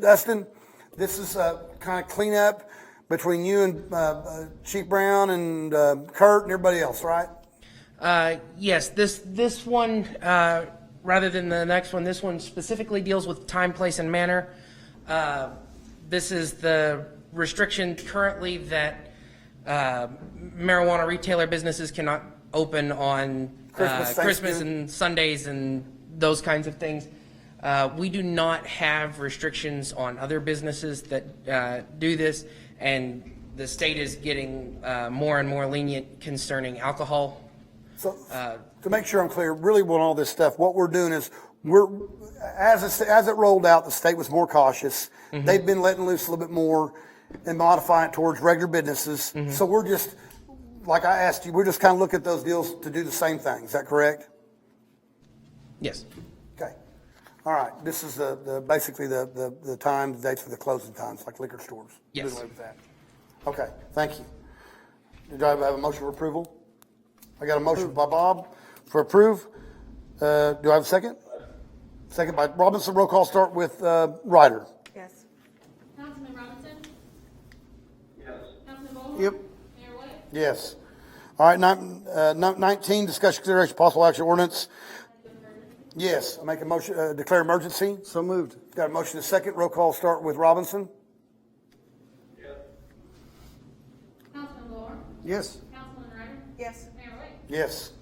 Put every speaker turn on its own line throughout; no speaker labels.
Dustin, this is uh, kind of cleanup between you and uh, uh, Chief Brown and uh, Kurt and everybody else, right?
Uh, Yes, this, this one, uh, rather than the next one, this one specifically deals with time, place, and manner. Uh, This is the restriction currently that uh, marijuana retailer businesses cannot open on uh,
Christmas,
Christmas
Thanksgiving.
and Sundays and those kinds of things. Uh, We do not have restrictions on other businesses that uh, do this, and the state is getting uh, more and more lenient concerning alcohol
So, to make sure I'm clear, really what all this stuff, what we're doing is we're, as it, as it rolled out, the state was more cautious. They've been letting loose a little bit more and modifying it towards regular businesses. So we're just, like I asked you, we're just kind of looking at those deals to do the same thing. Is that correct?
Yes.
Okay. All right. This is the, the, basically the, the, the time, the dates for the closing times, like liquor stores.
Yes.
Good way with that. Okay, thank you. Do I have a motion for approval? I got a motion by Bob for approve. Uh, do I have a second? Second by Robinson. Roll call start with, uh, Ryder.
Yes.
Councilman Robinson? Yes. Councilman Ballhorn?
Yep.
Mayor White?
Yes. All right, nine, uh, nine- nineteen, discussion consideration possible action ordinance. Yes, I make a motion, uh, declare emergency.
So moved.
Got a motion to second. Roll call start with Robinson.
Councilman Ballhorn?
Yes.
Councilman Ryder?
Yes.
Mayor White?
Yes.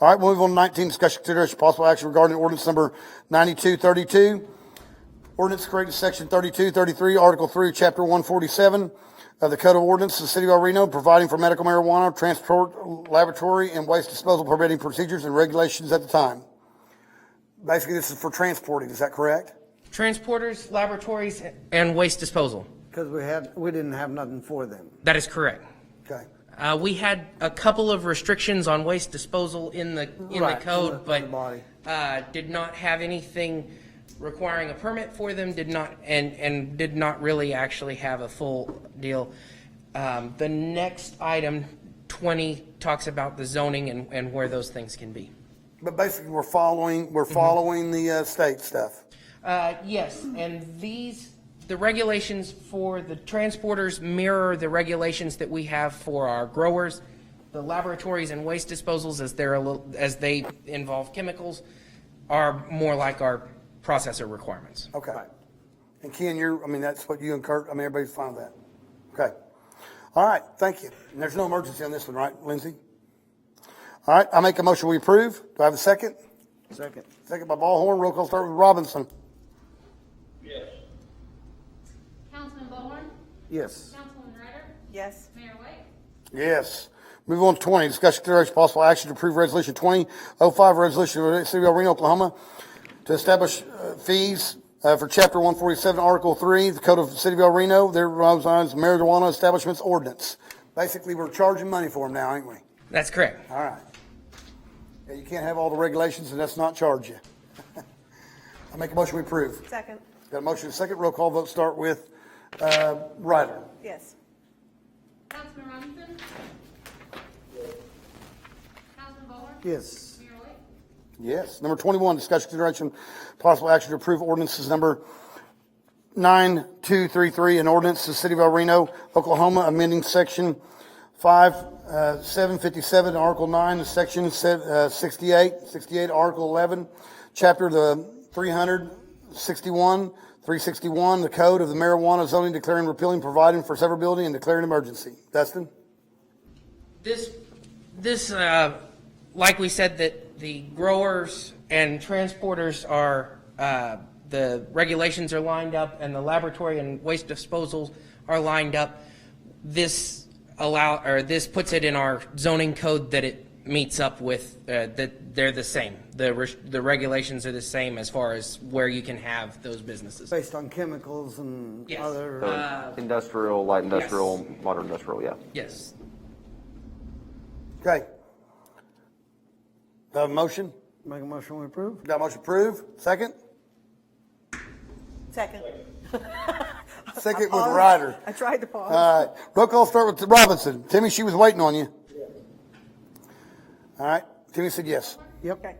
All right, we'll move on to 19, discussion consideration possible action regarding ordinance number 9232. Ordinance creating section 3233, article 3, chapter 147 of the Code of Ordinances of the City of El Reno, providing for medical marijuana, transport, laboratory, and waste disposal permitting procedures and regulations at the time. Basically, this is for transporting, is that correct?
Transporters, laboratories, and waste disposal.
Because we had, we didn't have nothing for them.
That is correct.
Okay.
Uh, we had a couple of restrictions on waste disposal in the, in the
Right,
code,
in the- in the
but,
body.
uh, did not have anything requiring a permit for them, did not, and, and did not really actually have a full deal. Um, the next item, twenty, talks about the zoning and, and where those things can be.
But basically, we're following,
Mm-hmm.
we're following the uh, state stuff.
Uh, Yes, and these, the regulations for the transporters mirror the regulations that we have for our growers, the laboratories and waste disposals, as they're a little, as they involve chemicals, are more like our processor requirements.
Okay. And Ken, you're, I mean, that's what you and Kurt, I mean, everybody's fine with that. Okay. All right, thank you. And there's no emergency on this one, right, Lindsay? All right, I make a motion we approve. Do I have a second?
Second.
Second by Ballhorn. Roll call start with Robinson.
Councilman Ballhorn?
Yes.
Councilman Ryder?
Yes.
Mayor White?
Yes. Move on to 20, discussion consideration possible action to approve resolution 2005, resolution of the City of El Reno, Oklahoma, to establish uh, fees uh, for chapter 147, article 3, the code of the City of El Reno, there resides marijuana establishments ordinance. Basically, we're charging money for them now, ain't we?
That's correct.
All right. Yeah, you can't have all the regulations and that's not charge you. I make a motion we approve.
Second.
Got a motion and a second. Roll call vote start with uh, Ryder.
Yes.
Councilman Robinson? Councilman Ballhorn?
Yes.
Mayor White?
Yes. Number 21, discussion consideration, possible action to approve ordinances number 9233, an ordinance to the City of El Reno, Oklahoma, amending section 5, uh, 757, Article 9, and section se- uh, 68, 68, Article 11, chapter the 361, 361, the code of the marijuana zoning declaring repealing, providing for severability, and declaring emergency. Dustin?
This, this, uh, like we said, that the growers and transporters are, uh, the regulations are lined up and the laboratory and waste disposals are lined up. This allow, or this puts it in our zoning code that it meets up with, uh, that they're the same. The, res- the regulations are the same as far as where you can have those businesses.
Based on chemicals and
Yes.
other,
So Industrial, light industrial,
yes.
modern industrial, yeah.
Yes.
Okay. Do I have a motion?
make a motion we approve?
Got a motion approved? Second?
Second.
Second with Ryder.
I tried to pause.
All right. Roll call start with Robinson. Timmy, she was waiting on you. All right. Timmy said yes.
Yep.
Okay.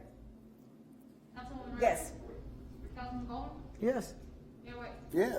Councilman Ryder?
Yes.
Councilman Ballhorn?
Yes.
Mayor White?
Yes.